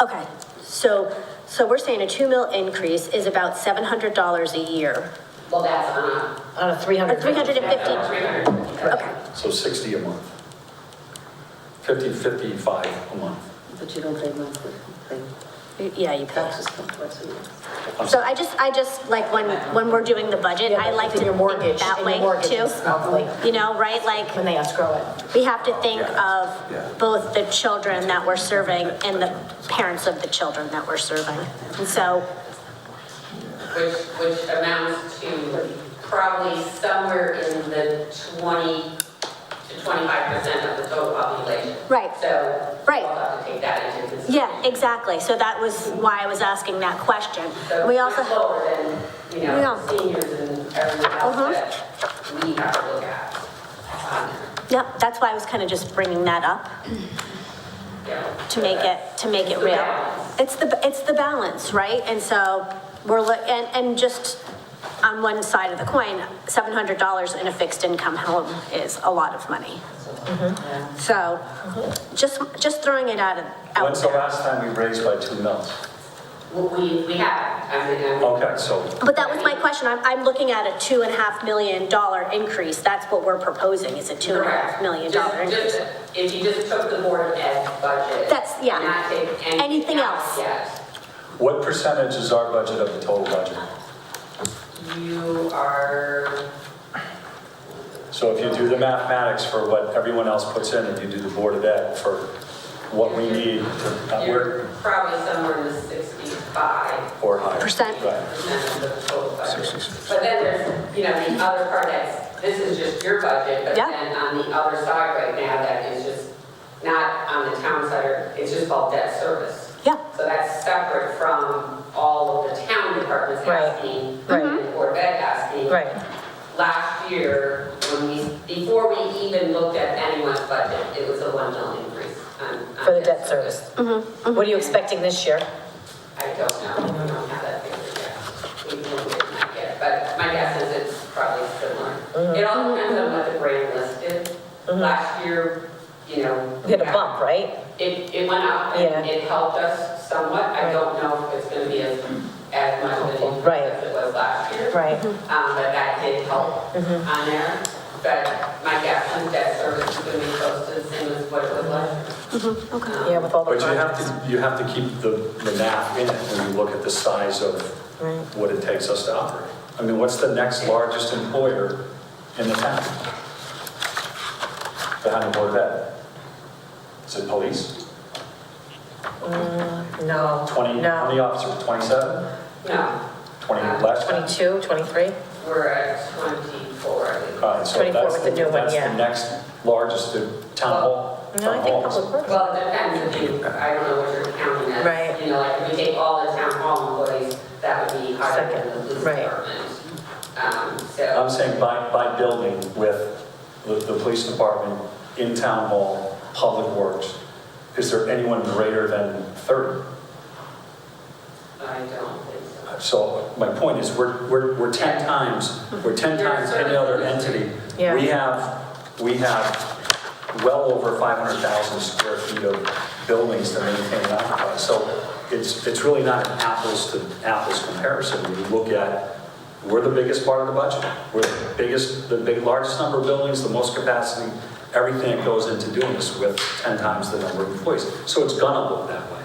Okay, so, so we're saying a two mil increase is about seven hundred dollars a year, Well, that's on on a three or hundred. three hundred and a fifty, 350. okay. So 60 a month. 50, 55 a month. But you don't pay monthly, pay Yeah, you pay. taxes come twice a year. So I just, I just, like, when, when we're doing the budget, I like to In your think mortgage, that in way your mortgage, too. it's monthly, You know, right, like, when they escrow it. we have to think Yeah, yeah. of both the children that we're serving and the parents of the children that we're serving. And so, Which, which amounts to probably somewhere in the 20 to 25% of the total population. Right. So Right. we'll have to take that into consideration. yeah, exactly, so that was why I was asking that question. So We also. much lower than, you know, Yeah. seniors and everyone Mhm. else that we have to look at. Um, Yep, that's why I was kind of just bringing that up, yeah. to make it, to make it real. It's the, it's the balance, right? And so we're, look- and, and just on one side of the coin, $700 in a fixed income home is a lot of money. Mm-hmm. So just, just throwing it out of, out When's Mm-hmm. the there. last time we raised by 2 mils? Well, We, we have, I mean, I'm- Okay, so But that was my question, I'm, I'm looking at a two and a half million dollar increase, that's what we're proposing, is a two and a half Correct. million Just- dollar increase. just- If you just took the board of ed budget. That's- yeah. Not take anything. Anything else. Yes, what percentage is our budget of the total budget? you are, So if you do the mathematics for what everyone else puts in, and you do the Board of Ed for what we need, to you're work probably somewhere in the sixty-five or higher. Percent. Right. percent of the total budget. But then there's, you know, the other part that's, this is just your budget, but Yeah. then on the other side right now, that is just not on the town side, or- it's just called debt service. Yeah. So that's separate from all of the town departments Right. asking, Right. and the Board of Ed asking. Mm-hmm. last year, when we, before we even looked at anyone's budget, it was a one mil increase on. on For the debt service. What are you expecting this year? I don't know, we don't have that figured yet. We don't get that yet, but my guess is it's probably Mm-hmm. similar. It all depends on what the brand list is. Last year, you know. You Mm-hmm. had a bump, right? It, it went up and Yeah. it helped us somewhat. I don't know if it's gonna be as, as much of an increase Right. as it was last year. Right. Um, but that did help Mm-hmm. on there. But my guess is debt service is gonna be close to the same as what it was last Mm-hmm. year. Um, Yeah, with all the. But you have projects. to, you have to keep the, the math in it when you look at the size of what it takes us to operate. I mean, what's the next largest employer in the town? Behind the Board of Ed? Is it police? No. 20, how many No. Uh, officers, 27? No, 20 last time? Twenty-two, twenty-three? we're at twenty-four, I think. All right, so 24 that's with the new one, That's yeah. the next largest to town hall. No, I town think halls. public works. Well, it depends if you, I don't know what you're counting as. Right. You know, like if you take all the town hall employees, that would be higher than the police Second, right. department. Um, so, I'm saying by, by building with the, the police department in town hall, public works, is there anyone greater than 30? I don't think so. So my point is, we're, we're, we're 10 times, we're 10 times any other entity. Yeah. We have, we have well over 500,000 square feet of buildings to maintain and occupy. So it's, it's really not an apples to apples comparison. When you look at, we're the biggest part of the budget. We're the biggest, the big, largest number of buildings, the most capacity, everything that goes into doing this with 10 times the number of employees. So it's gonna look that way.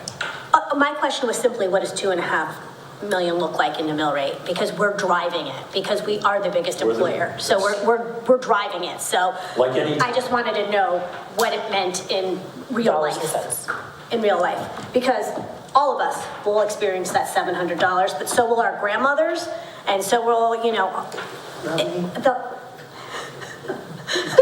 Uh, My question was simply, what does two and a half million look like in the mill rate? Because we're driving it, because we are the biggest We're the- employer. So we're, we're, we're driving it, so. Like any- I just wanted to know what it meant in real Dollars life. and cents. In real life, because all of us will experience that seven hundred dollars, but so will our grandmothers, and so will, you know, it- the,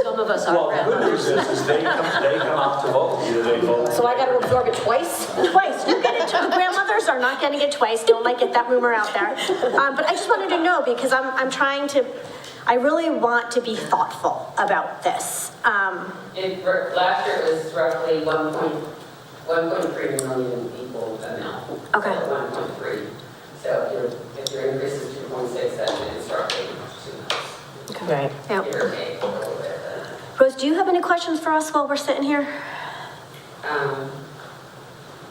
Some of us Well, the good news is, is they come, they come out to vote, either they vote. So I gotta absorb it twice? Twice, you get it, tw- grandmothers are not getting it twice, don't like it, that rumor out there. Um, but I just wanted to know, because I'm, I'm trying to, I really want to be thoughtful about this. Um, It, r- last year it was roughly one point, one point three million people now. Okay. One point three. So if your, if your increase is two point six, then it's roughly two, Right. yeah. give or take a little bit. Rose, do you have any questions for us while we're sitting here? Um,